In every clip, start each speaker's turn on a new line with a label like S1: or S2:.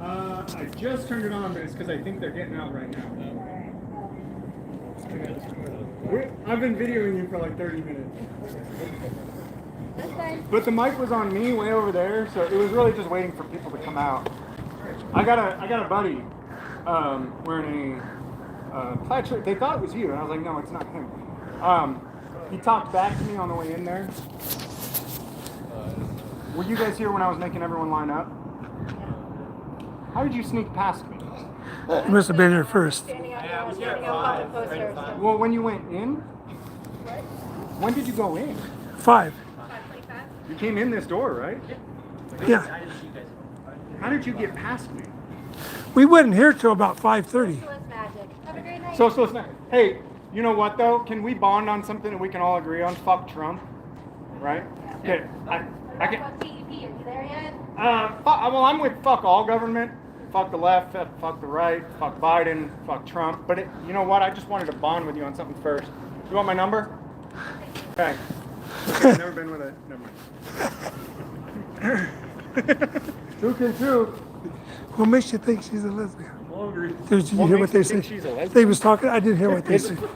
S1: Uh, I just turned it on, but it's because I think they're getting out right now. We're, I've been videoing you for like 30 minutes.
S2: That's fine.
S1: But the mic was on me way over there, so it was really just waiting for people to come out. I got a I got a buddy um, wearing a uh, plaid shirt. They thought it was you, and I was like, no, it's not him. Um, he talked back to me on the way in there. Were you guys here when I was making everyone line up? How did you sneak past me?
S3: You must have been here first.
S2: Standing out there, standing out front of the poster. so-
S1: Well, when you went in, when did you go in?
S3: Five.
S1: You came in this door, right?
S3: Yeah.
S1: How did you get past me?
S3: We wasn't here till about 5:30.
S2: Socialist magic. Have a great night.
S1: Social snap. Hey, you know what though? Can we bond on something that we can all agree on? Fuck Trump, right? Okay. I, I
S2: What
S1: can.
S2: about TEP? Are you there yet?
S1: Uh, fu well, I'm with fuck all government. Fuck the left. fuck- Fuck the right. Fuck Biden. Fuck Trump. But it, you know what? I just wanted to bond with you on something first. You want my number? Okay. okay I've never been with a. Never mind. two can two.
S3: What makes you think she's a lesbian?
S1: Hungry.
S3: Did you
S1: What
S3: hear
S1: makes
S3: what
S1: you
S3: they
S1: think
S3: said?
S1: she's a lesbian?
S3: They was talking, I didn't hear what they
S1: It's-
S3: said.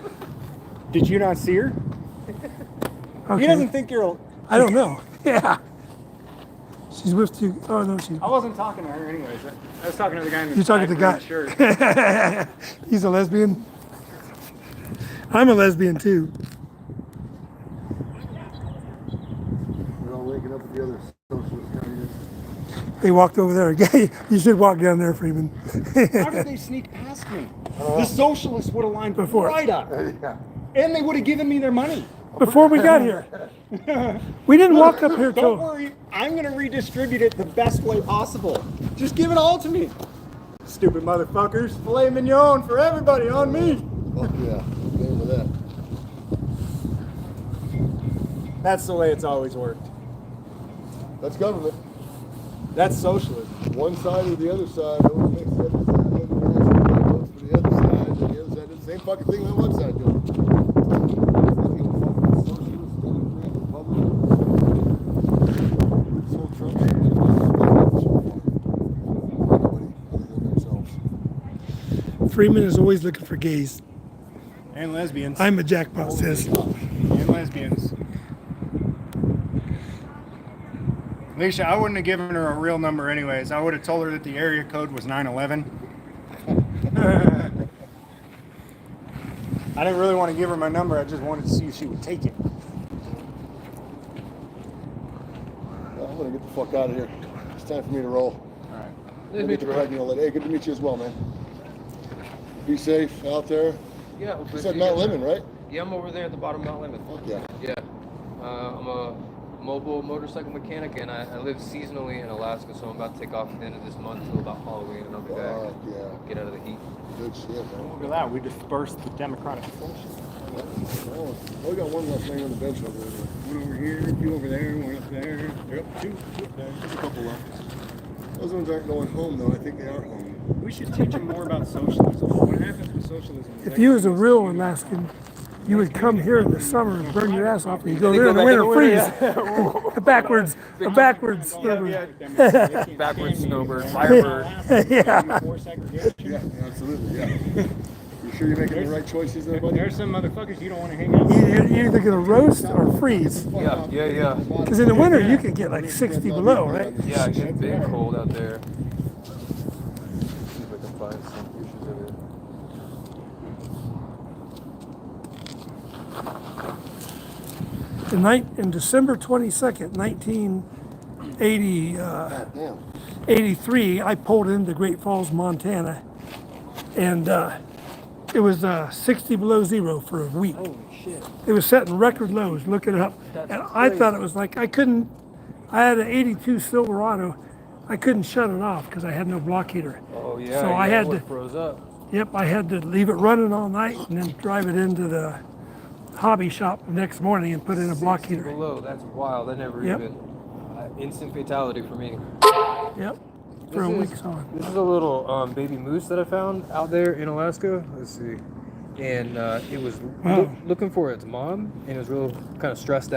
S1: Did you not see her? He doesn't
S3: Okay.
S1: think you're. a-
S3: I don't know. Yeah. She's with you. Oh, no, she,
S1: I wasn't talking to her anyways. I- I was talking to the guy in the
S3: you're talking to the
S1: black green shirt.
S3: guy. He's a lesbian. I'm a lesbian too.
S4: We're all linking up with the other socialist communists.
S3: They walked over there. Okay, you should walk down there, Freeman.
S1: How did they sneak past me? The socialists would have lined
S3: Before.
S1: right up.
S4: Yeah.
S1: And they would have given me their money.
S3: Before we got here. We didn't walk up here
S1: Don't
S3: till,
S1: worry, I'm going to redistribute it the best way possible. Just give it all to me. Stupid motherfuckers. Filet mignon for everybody on me.
S4: Fuck yeah. Game with that.
S1: That's the way it's always worked.
S4: That's government.
S1: That's socialism.
S4: One side or the other side. No one makes the other side. look bad. Everybody votes for the other side. And the other side does the same fucking thing on one side doing.
S3: Freeman is always looking for gays.
S1: And lesbians.
S3: I'm a jackpot, sis.
S1: and lesbians. Alicia, I wouldn't have given her a real number anyways. I would have told her that the area code was 911. I didn't really want to give her my number. I just wanted to see if she would take it.
S4: I'm gonna get the fuck out of here. It's time for me to roll.
S1: All right.
S4: Good to meet you. Hey, good to meet you as well, man. Be safe out there.
S5: Yeah, we'll
S4: You
S5: put
S4: said
S5: you
S4: Mount
S5: together.
S4: Lemon, right?
S5: Yeah, I'm over there at the bottom of Mount Lemon.
S4: Fuck yeah.
S5: Yeah, uh, I'm a mobile motorcycle mechanic, and I, I live seasonally in Alaska, so I'm about to take off at the end of this month till about Halloween, and I'll be
S4: Fuck
S5: back.
S4: yeah.
S5: Get out of the heat.
S4: Good shit, man.
S1: Look at that. We dispersed the Democratic forces.
S4: Oh, we got one left laying on the bench over there.
S1: One over here, two over there, one up there. Yep, two, two up there. There's a couple left.
S4: Those ones aren't going home though. I think they are home.
S1: We should teach them more about socialism. What happens with socialism?
S3: If you was a real Alaskan, you would come here in the summer and burn your ass off, and you go there in the
S5: back in
S3: winter,
S5: the
S3: freeze. The backwards, the backwards. river.
S5: Backwards snowbird,
S3: Yeah.
S4: Yeah, absolutely. Yeah. you sure you're making the right choices there, buddy?
S1: There's some motherfuckers you don't want to hang out
S3: You-
S1: with.
S3: You're you're either gonna roast or freeze,
S5: Yeah, yeah, yeah.
S3: because in the winter you could get like 60 below, right?
S5: Yeah, it gets big cold out there. See if I can find some pictures of it.
S3: The night in December 22nd, 1980. Uh,
S4: Damn.
S3: 83, I pulled into Great Falls, Montana, and uh, it was uh, 60 below zero for a week. Holy shit. It was setting record lows, look it up. and I thought it was like, I couldn't, I had an 82 Silverado, I couldn't shut it off because I had no block heater.
S5: Oh yeah.
S3: So
S5: yeah,
S3: I had
S5: what
S3: to-
S5: froze up.
S3: Yep, I had to leave it running all night and then drive it into the hobby shop the next morning and put in a block
S5: 60
S3: heater.
S5: Below. That's wild. I never
S3: Yep.
S5: even. Uh, instant fatality for me.
S3: Yep, for a
S5: This
S3: week
S5: is-
S3: on.
S5: This is a little um, baby moose that I found out there in Alaska. Let's see. And uh, it was loo-
S3: Wow.
S5: looking for its mom, and it was real kind of stressed out.